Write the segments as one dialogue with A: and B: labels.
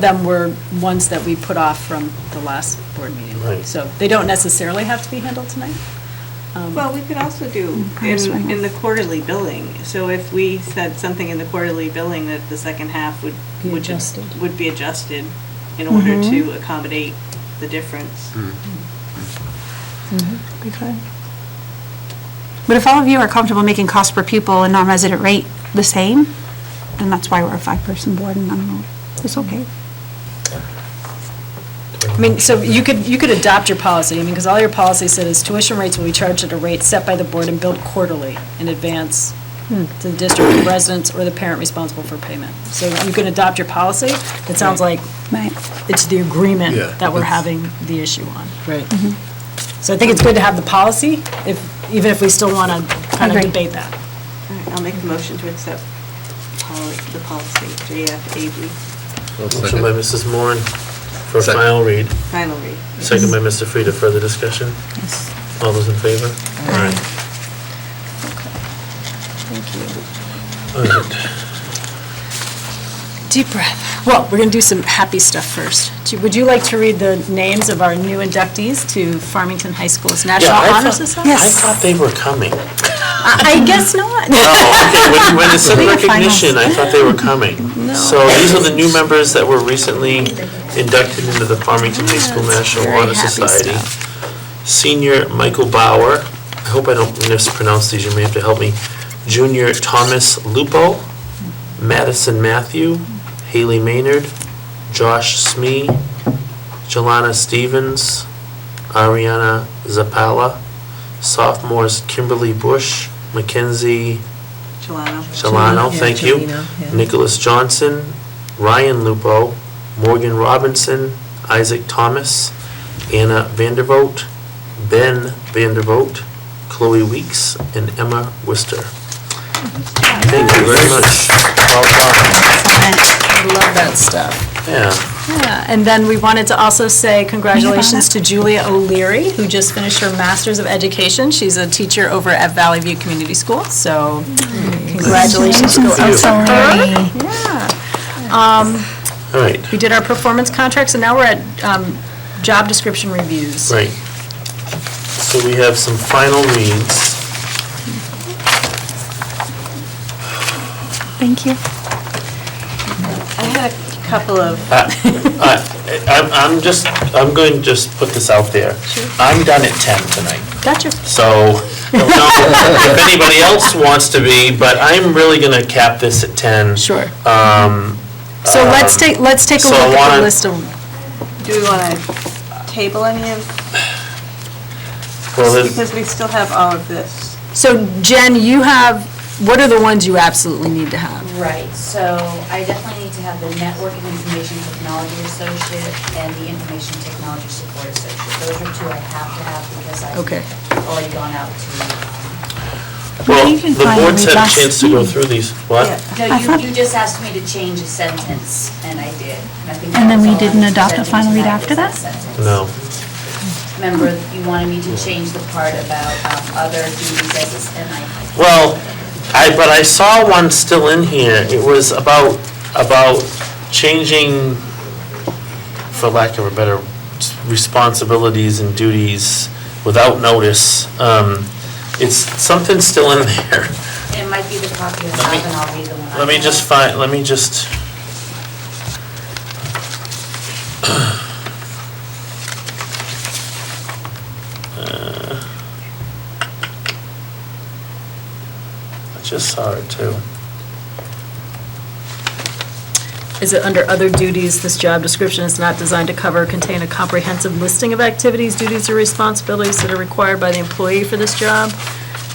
A: them were ones that we put off from the last board meeting.
B: Right.
A: So they don't necessarily have to be handled tonight. Um,
C: Well, we could also do
A: Perhaps
C: in,
A: we-
C: in the quarterly billing. So if we said something in the quarterly billing that the second half would,
A: Be
C: would, just-
A: adjusted.
C: would be adjusted Mm-hmm. in order to accommodate the difference.
B: Mm.
D: We could. But if all of you are comfortable making cost per pupil and non-resident rate the same, then that's why we're a five-person board and I don't know, it's okay.
A: I mean, so you could, you could adopt your policy, I mean, because all your policy said is tuition rates will be charged at a rate set by the board and billed quarterly in advance to the district residents or the parent responsible for payment. So you can adopt your policy, it sounds like
D: Right.
A: it's the agreement
B: Yeah,
A: that we're
B: it's-
A: having the issue on. Right. So I think it's good to have the policy, if, even if we still want to kind of
D: Agree.
A: debate that.
C: All right, I'll make the motion to accept poli- the policy, JFAB,
B: Motion by Mrs. Moore for
E: Second.
B: final read,
C: final read.
B: second by Mr. Frieda, further discussion? All those in favor? Aye.
A: Deep breath. Well, we're going to do some happy stuff first. Do- Would you like to read the names of our new inductees to Farmington High School's National
B: Yeah, I
A: Honor
B: thought-
A: Society?
B: I thought they were coming.
A: I I guess not.
B: Oh, okay, when, when the said
D: Bring a
B: recognition, I thought they were coming. So these are the new members that were recently inducted into the Farmington High School National Honor Society. Senior Michael Bauer, I hope I don't mispronounce these, you may have to help me. Junior Thomas Lupo, Madison Matthew, Haley Maynard, Josh Smee, Jelana Stevens, Ariana Zapala, sophomores Kimberly Bush, Mackenzie
C: Jelano.
B: Solano, thank you. Nicholas Johnson, Ryan Lupo, Morgan Robinson, Isaac Thomas, Anna Vandervoot, Ben Vandervoot, Chloe Weeks, and Emma Worcester. Thank you very much. Well done.
A: I love that stuff.
B: Yeah,
A: Yeah, and then we wanted to also say congratulations to Julia O'Leary, who just finished her Masters of Education. She's a teacher over at Valley View Community School, so congratulations go out to her.
B: all right,
A: We did our performance contracts, and now we're at um, job description reviews.
B: right. So we have some final reads.
D: Thank you.
C: I had a couple of,
B: Uh, I'm, I'm just, I'm going to just put this out there. I'm done at 10 tonight.
A: Gotcha.
B: So, don't know if anybody else wants to be, but I'm really going to cap this at 10.
A: Sure. So let's take, let's take a
B: Um, uh,
A: look
B: so I
A: at
B: wanna-
A: the list of,
C: do we want to table any of,
B: Well, then,
C: because we still have all of this.
A: so Jen, you have, what are the ones you absolutely need to have?
F: Right, so I definitely need to have the network and information technology associate and the information technology support associate. Those are two I have to have because
A: Okay.
F: I've already gone out to, um,
B: well,
D: you can
B: the
D: find
B: board's
D: the
B: had a
D: last
B: chance to go through these. What?
C: Yeah.
F: no,
D: I thought-
F: you, you just asked me to change a sentence, and I did. And I think
D: And
F: that
D: then
F: was
D: we
F: all I
D: didn't
F: was
D: adopt a
F: presenting
D: final read
F: tonight
D: after
F: was
D: that?
F: sentence.
B: No.
F: Remember, you wanted me to change the part about um, other duties as, a- and I
B: Well, I, but I saw one still in here. It was about, about changing, for lack of a better, responsibilities and duties without notice. Um, It's, something still in there.
F: It might be the copy I
B: Let me-
F: have, and I'll read the one I
B: Let me
F: have.
B: just find, let me just. Uh, I just saw it too.
A: Is it under other duties, this job description is not designed to cover or contain a comprehensive listing of activities, duties, or responsibilities that are required by the employee for this job?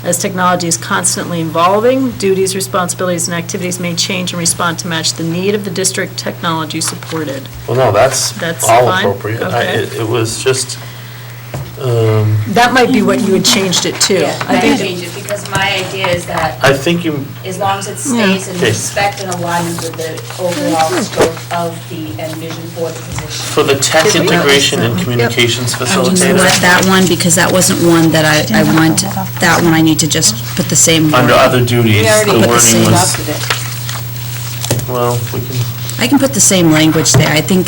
A: As technology is constantly evolving, duties, responsibilities, and activities may change and respond to match the need of the district technology supported.
B: Well, no, that's
A: That's
B: all
A: fine?
B: appropriate. I-
A: Okay.
B: It it was just, um,
A: That might be what you had changed it to.
F: Yeah, I did change it because my idea is that
B: I think you,
F: as long as it stays in
B: Okay.
F: respect and alignment with the overall scope of the, and vision for the position.
B: for the tech
A: Did we?
B: integration and communications
G: I'm just gonna let
B: facilitator,
G: that one, because that wasn't one that I, I want, that one I need to just put the same word.
B: under other duties, the
G: put the
B: wording
G: same
B: was, well, we can,
F: I can put the same language there. I think